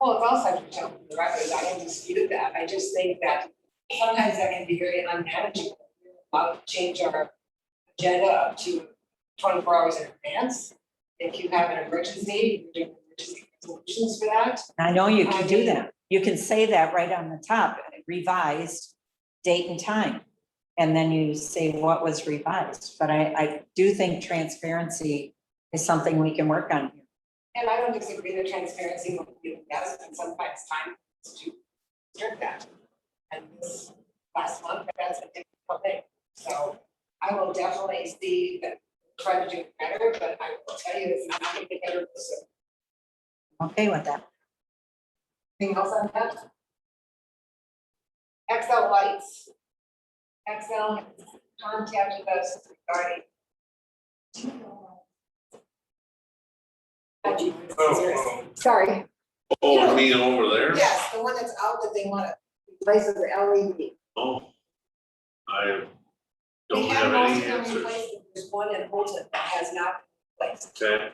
Well, it's also jump the records, I don't dispute that, I just think that sometimes that can be very unmanageable. We're allowed to change our agenda up to twenty-four hours in advance. If you have an emergency, you're doing emergency resolutions for that. I know you can I do mean- that. You can say that right on the top, revised date and time. And then you say what was revised, but I, I do think transparency is something we can work on. here. And I don't disagree that transparency will be best, and sometimes time is to strip that. And this last month, that's a difficult thing, so I will definitely see that, try to do better, but I will tell you, it's not gonna get better, so. Okay with that? Anything else on that? Excel Lights. Excel contacted us regarding. Oh, geez, this is serious. Oh, Sorry, oh, oh, you mean over there? yes, the one that's out that they wanna replace with the E LED. Oh. I They don't have any most of them answers. replaced, There's one in Holton that has not been replaced. Okay,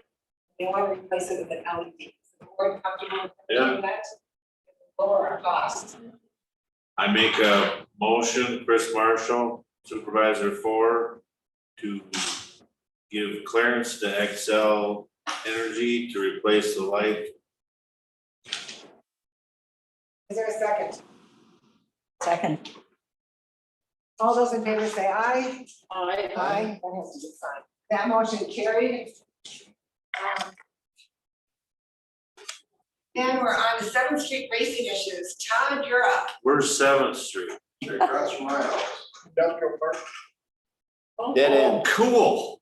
They wanna replace it with an LED. Is the board comfortable with Yeah. doing that? Lower our costs. I make a motion, Chris Marshall, supervisor four, to give clearance to Excel Energy to replace the light. Is there a second? Second, All those in favor say aye. Aye. Aye, that has to be signed. That motion carried. Um, And we're on the Seventh Street racing issues. Todd, you're up. Where's Seventh Street? Across from my house. Industrial park. Dead end. Oh, Cool.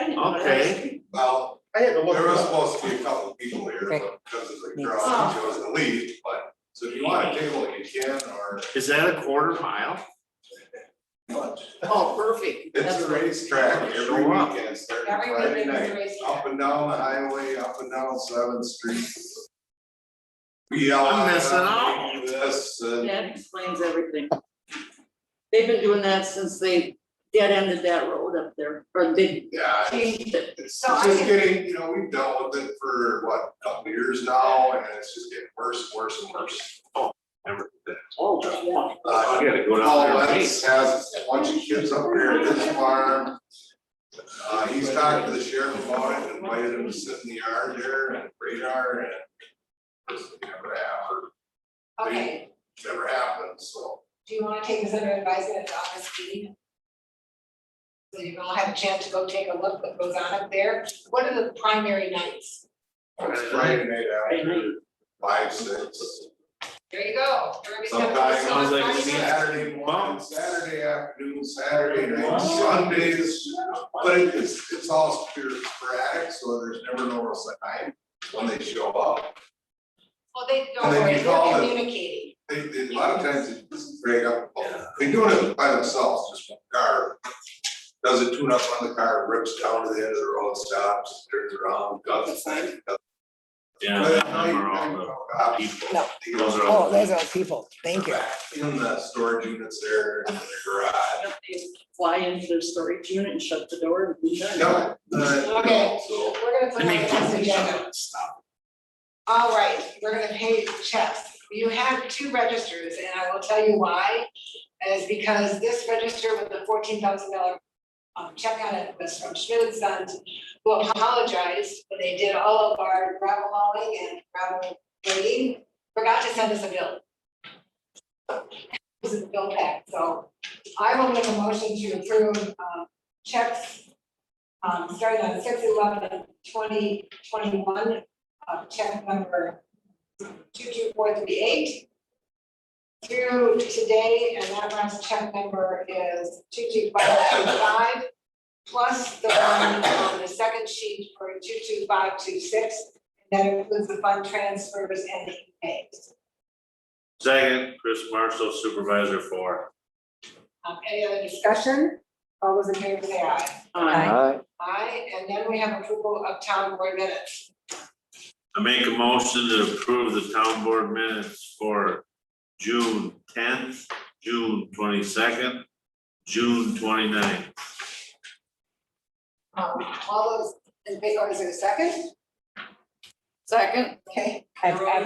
Okay, Well, I had to look there it was up. Ah. supposed to be a couple of people here, but because of the crowd, we chose to leave, but, so if you want to table it, you can, or is that a quarter mile? Oh, perfect. it's a racetrack every Show up. weekend, starting Every Friday weekend is night. racing. Up and down the highway, up and down Seventh Street. We all. I'm missing out. This, uh, That explains everything. They've been doing that since they dead ended that road up there, or they yeah, changed it. it's So I just can- getting, you know, we've dealt with it for what, a couple of years now, and it's just getting worse, worse and worse. Never did Oh, that. Uh, I gotta go down there. Paul and Lenz has a bunch of kids up there at this farm. Uh, he's talked to the sheriff about it, invited him to sit in the yard there and radar and. it's Never happened, Okay, never happened, so. do you want to take this under advisement at the office meeting? So you all have a chance to go take a look what goes on up there. What are the primary nights? It's Friday night after five, six, There you go. Everybody's got to- Sometimes- Sounds like we need- Saturday morning, Saturday afternoon, Saturday night, Sundays. But it- it's, it's all sporadic, so there's never no real set time when they show up. Well, they don't And then worry, you call they're it- communicating. They, they, a lot of times they just break up, they're doing it by themselves, just one car. Does a tune up on the car, rips down to the end of the road, stops, turns around, does the thing. does- Yeah, But at that night, number on I'm the all the people. No. Those are all Oh, those are people, thank you. In the storage units there, in the garage. They Fly into their storage unit and shut the door and be done. No, uh, Okay. no, so. We're gonna put Let it on me- the next agenda. All right, we're gonna pay checks. You have two registers, and I will tell you why. And it's because this register with the fourteen thousand dollar um check on it was from Schmidt and Sons, who apologized when they did all of our gravel hauling and gravel grading, forgot to send us a bill. This is a bill pack, so I will make a motion to approve um checks um starting on six eleven twenty twenty-one uh, check number two two four three eight through today, and that last check number is two two five two five, plus the one on the second sheet for two two five two six, that includes the fund transfers and the pays. Second, Chris Marshall supervisor four. Um, any other discussion? All those in favor say aye. Uh, Aye. Aye, and then we have approval of town board minutes. I make a motion to approve the town board minutes for June tenth, June twenty-second, June 29th. Um, all those in favor, is there a second? Second. Okay. I've, I've